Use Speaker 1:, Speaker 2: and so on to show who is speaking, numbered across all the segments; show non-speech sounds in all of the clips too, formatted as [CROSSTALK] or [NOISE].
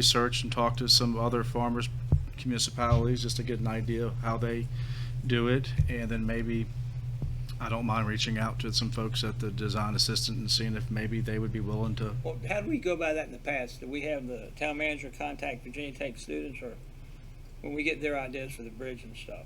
Speaker 1: research and talk to some other farmers, municipalities, just to get an idea of how they do it. And then maybe, I don't mind reaching out to some folks at the design assistant and seeing if maybe they would be willing to.
Speaker 2: Well, how do we go by that in the past? Do we have the town manager contact Virginia Tech students or when we get their ideas for the bridge and stuff?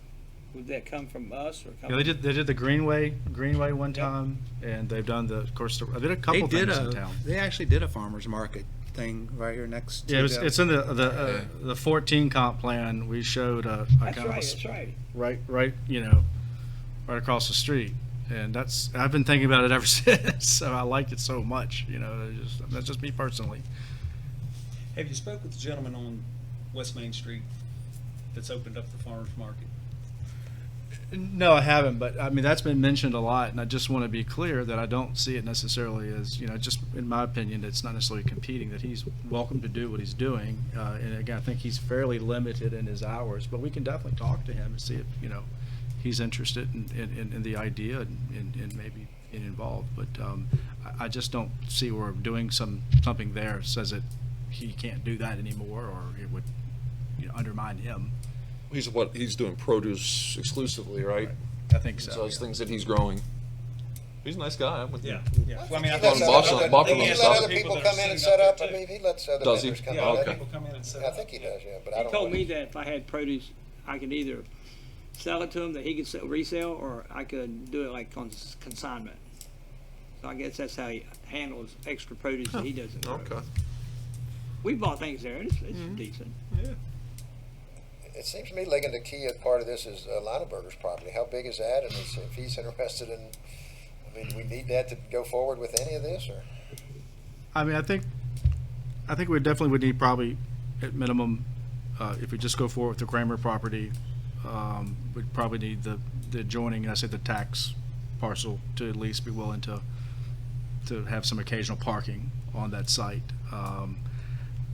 Speaker 2: Would that come from us or
Speaker 1: You
Speaker 2: come?
Speaker 1: know, they did, they did the Greenway, Greenway one time, and they've done the, of course, they did a couple
Speaker 3: they did
Speaker 1: things
Speaker 3: a-
Speaker 1: in town.
Speaker 3: They actually did a farmer's market thing right here next to.
Speaker 1: Yeah, it was,
Speaker 3: the-
Speaker 1: it's in the, the, uh, the fourteen comp plan, we showed a. a
Speaker 2: That's
Speaker 1: kind of a
Speaker 2: right,
Speaker 1: s-
Speaker 2: that's right.
Speaker 1: right, right, you know, right across the street. And that's, I've been thinking about it ever [LAUGHS] since, so I liked it so much, you know, it's just, that's just me personally.
Speaker 4: Have you spoke with the gentleman on West Main Street that's opened up the farmer's market?
Speaker 1: No, I haven't, but I mean, that's been mentioned a lot, and I just want to be clear that I don't see it necessarily as, you know, just in my opinion, it's not necessarily competing, that he's welcome to do what he's doing. Uh, and again, I think he's fairly limited in his hours, but we can definitely talk to him and see if, you know, he's interested in, in, in- in the idea and, and- and maybe get involved. But, um, I, I just don't see where doing some, something there says that he can't do that anymore, or it would, you know, undermine him.
Speaker 5: He's what, he's doing produce exclusively, right?
Speaker 1: I think so.
Speaker 5: So it's
Speaker 1: yeah.
Speaker 5: things that he's growing. He's a nice guy, I'm with you.
Speaker 4: yeah. Well, I mean, I
Speaker 6: He
Speaker 5: thought
Speaker 4: think
Speaker 6: lets
Speaker 5: on
Speaker 4: so.
Speaker 6: other-
Speaker 5: Bosch- Bosch
Speaker 6: other- doesn't he
Speaker 5: was
Speaker 6: let
Speaker 5: up.
Speaker 6: other people come in and set up, I mean, he lets other
Speaker 5: Does he?
Speaker 6: vendors come in.
Speaker 4: Yeah,
Speaker 5: Oh,
Speaker 6: I
Speaker 5: okay.
Speaker 6: think-
Speaker 4: people come in and set
Speaker 6: I
Speaker 4: up.
Speaker 6: think he
Speaker 4: yeah.
Speaker 6: does, yeah, but I
Speaker 2: He
Speaker 6: don't.
Speaker 2: told
Speaker 6: know.
Speaker 2: me that if I had produce, I could either sell it to him that he could sell, resell, or I could do it like on s- consignment. So I guess that's how he handles extra produce that he
Speaker 1: Oh,
Speaker 2: doesn't grow.
Speaker 5: Okay.
Speaker 2: We bought things there, and it's, it's
Speaker 1: Mm-hmm.
Speaker 2: decent.
Speaker 6: It seems to me, Ligon, the key of part of this is uh, Lineburger's property. How big is that? And is- if he's interested in, I mean, do we need that to go forward with any of this or?
Speaker 1: I mean, I think, I think we definitely would need probably, at minimum, uh, if we just go forward with the Kramer property, um, we'd probably need the, the adjoining, and I say the tax parcel to at least be willing to, to have some occasional parking on that site. Um,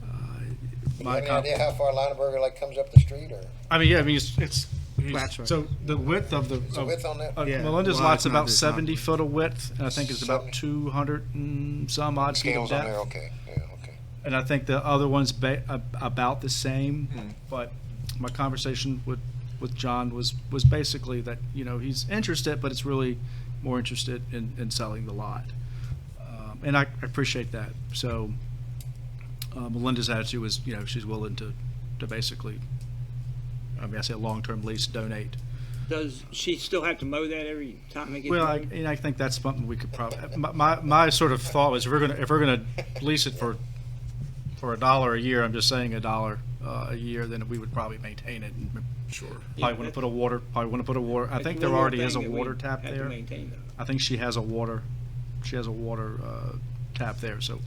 Speaker 1: uh,
Speaker 6: Do you
Speaker 1: my
Speaker 6: have any
Speaker 1: com-
Speaker 6: idea how far Lineburger like comes up the street or?
Speaker 1: I mean, yeah, I mean, it's, it's,
Speaker 3: That's right.
Speaker 1: so the width of the.
Speaker 6: Is the
Speaker 1: of-
Speaker 6: width on that?
Speaker 1: of
Speaker 3: Yeah,
Speaker 1: Melinda's
Speaker 3: well,
Speaker 1: lot's
Speaker 3: it's not-
Speaker 1: about
Speaker 3: it's not-
Speaker 1: seventy foot of width, and I think it's about
Speaker 6: Seventy.
Speaker 1: two hundred and some odd feet of
Speaker 6: Scales on
Speaker 1: depth.
Speaker 6: there, okay, yeah, okay.
Speaker 1: And I think the other one's ba- ab- about the same, but my conversation with, with John was, was basically that, you know, he's interested, but it's really more interested in, in selling the lot. Um, And I I appreciate that. So uh, Melinda's attitude was, you know, she's willing to, to basically, I mean, I say a long-term lease, donate.
Speaker 2: Does she still have to mow that every time it gets?
Speaker 1: Well, I,
Speaker 2: mowed?
Speaker 1: and I think that's something we could probably, my, my sort of thought was, if we're gonna, if we're gonna lease it for, for a dollar a year, I'm just saying a dollar, uh, a year, then we would probably maintain it and
Speaker 5: Sure.
Speaker 1: probably wanna put a water, probably wanna put a water, I
Speaker 2: That's
Speaker 1: think
Speaker 2: one
Speaker 1: there
Speaker 2: more
Speaker 1: already is a
Speaker 2: thing that we
Speaker 1: water tap
Speaker 2: have to
Speaker 1: there.
Speaker 2: maintain, though.
Speaker 1: I think she has a water, she has a water, uh, tap there, so,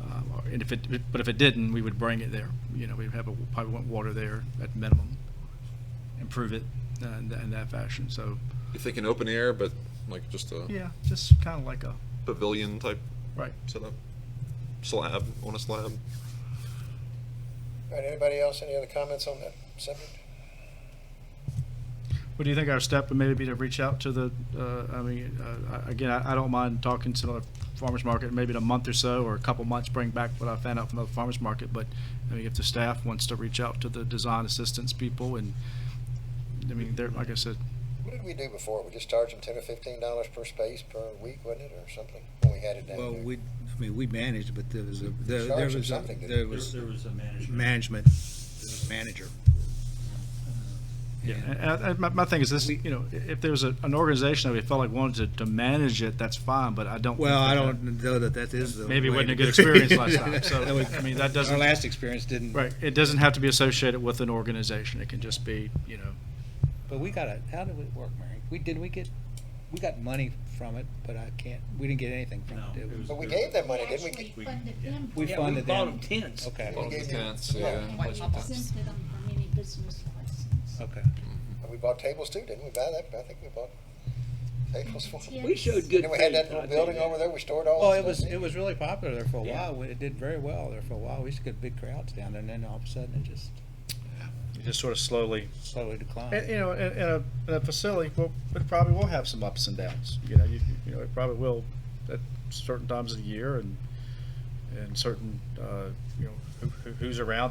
Speaker 1: uh, and if it, but if it didn't, we would bring it there. You know, we'd have a, probably want water there at minimum, improve it, uh, in that, in that fashion, so,
Speaker 5: You're thinking open air, but like just a
Speaker 1: yeah, just kinda like a,
Speaker 5: pavilion type
Speaker 1: right.
Speaker 5: setup? Slab, on a slab?
Speaker 6: All right, anybody else, any other comments on that subject?
Speaker 1: What do you think our step would maybe be to reach out to the, uh, I mean, uh, I- again, I I don't mind talking to another farmer's market, maybe in a month or so, or a couple months, bring back what I found out from the farmer's market, but, I mean, if the staff wants to reach out to the design assistance people and, I mean, they're, like I said,
Speaker 6: What did we do before? We just charged them ten or fifteen dollars per space per week, wasn't it, or something, when we had it down
Speaker 3: Well,
Speaker 6: there?
Speaker 3: we, I mean, we managed, but there was a, there there
Speaker 6: Charged him
Speaker 3: was, a-
Speaker 6: something, didn't
Speaker 3: there
Speaker 6: we?
Speaker 3: was
Speaker 4: was a management.
Speaker 3: management, there was a manager.
Speaker 1: yeah, and, and my, my thing is this, you know, i- if there's a, an organization that we felt like wanted to, to manage it, that's fine, but I don't. think
Speaker 3: Well, I
Speaker 1: that-
Speaker 3: don't know that that is the.
Speaker 1: Maybe it
Speaker 3: way
Speaker 1: wasn't a
Speaker 3: to
Speaker 1: good
Speaker 3: do it.
Speaker 1: experience last
Speaker 3: [LAUGHS]
Speaker 1: time, so,
Speaker 3: That was-
Speaker 1: I mean, that doesn't-
Speaker 3: Our last experience didn't,
Speaker 1: Right, it doesn't have to be associated with an organization, it can just be, you know,
Speaker 3: but we got a, how did it work, Mary? We, did we get, we got money from it, but I can't, we didn't get anything from it,
Speaker 4: No,
Speaker 3: did
Speaker 4: it
Speaker 3: we?
Speaker 4: was-
Speaker 6: But we gave them money, didn't we?
Speaker 7: Actually funded them.
Speaker 3: We
Speaker 2: Yeah,
Speaker 3: funded
Speaker 2: bought them
Speaker 3: them.
Speaker 2: tents.
Speaker 3: Okay,
Speaker 6: We gave them-
Speaker 5: Tents, yeah.
Speaker 7: And
Speaker 5: place for tents.
Speaker 7: exempted them from any business license.
Speaker 3: okay.
Speaker 6: And we bought tables too, didn't we buy that? I think we bought tables for them.
Speaker 7: Yeah.
Speaker 2: We showed good
Speaker 6: And we had
Speaker 2: faith,
Speaker 6: that
Speaker 2: I'll tell
Speaker 6: little
Speaker 2: you
Speaker 6: building
Speaker 2: that.
Speaker 6: over there, we stored all.
Speaker 3: Well,
Speaker 6: the
Speaker 3: it was,
Speaker 6: stuff.
Speaker 3: it was really popular there for a
Speaker 2: Yeah.
Speaker 3: while. We- It did very well there for a while. We used to get big crowds down there, and then all of a sudden it just
Speaker 1: just sort of slowly
Speaker 3: slowly
Speaker 1: And,
Speaker 3: declined.
Speaker 1: you know, in, in a, in a facility, well, it probably will have some ups and downs, you know, you, you know, it probably will at certain times of the year and, and certain, uh, you know, who- who- who's around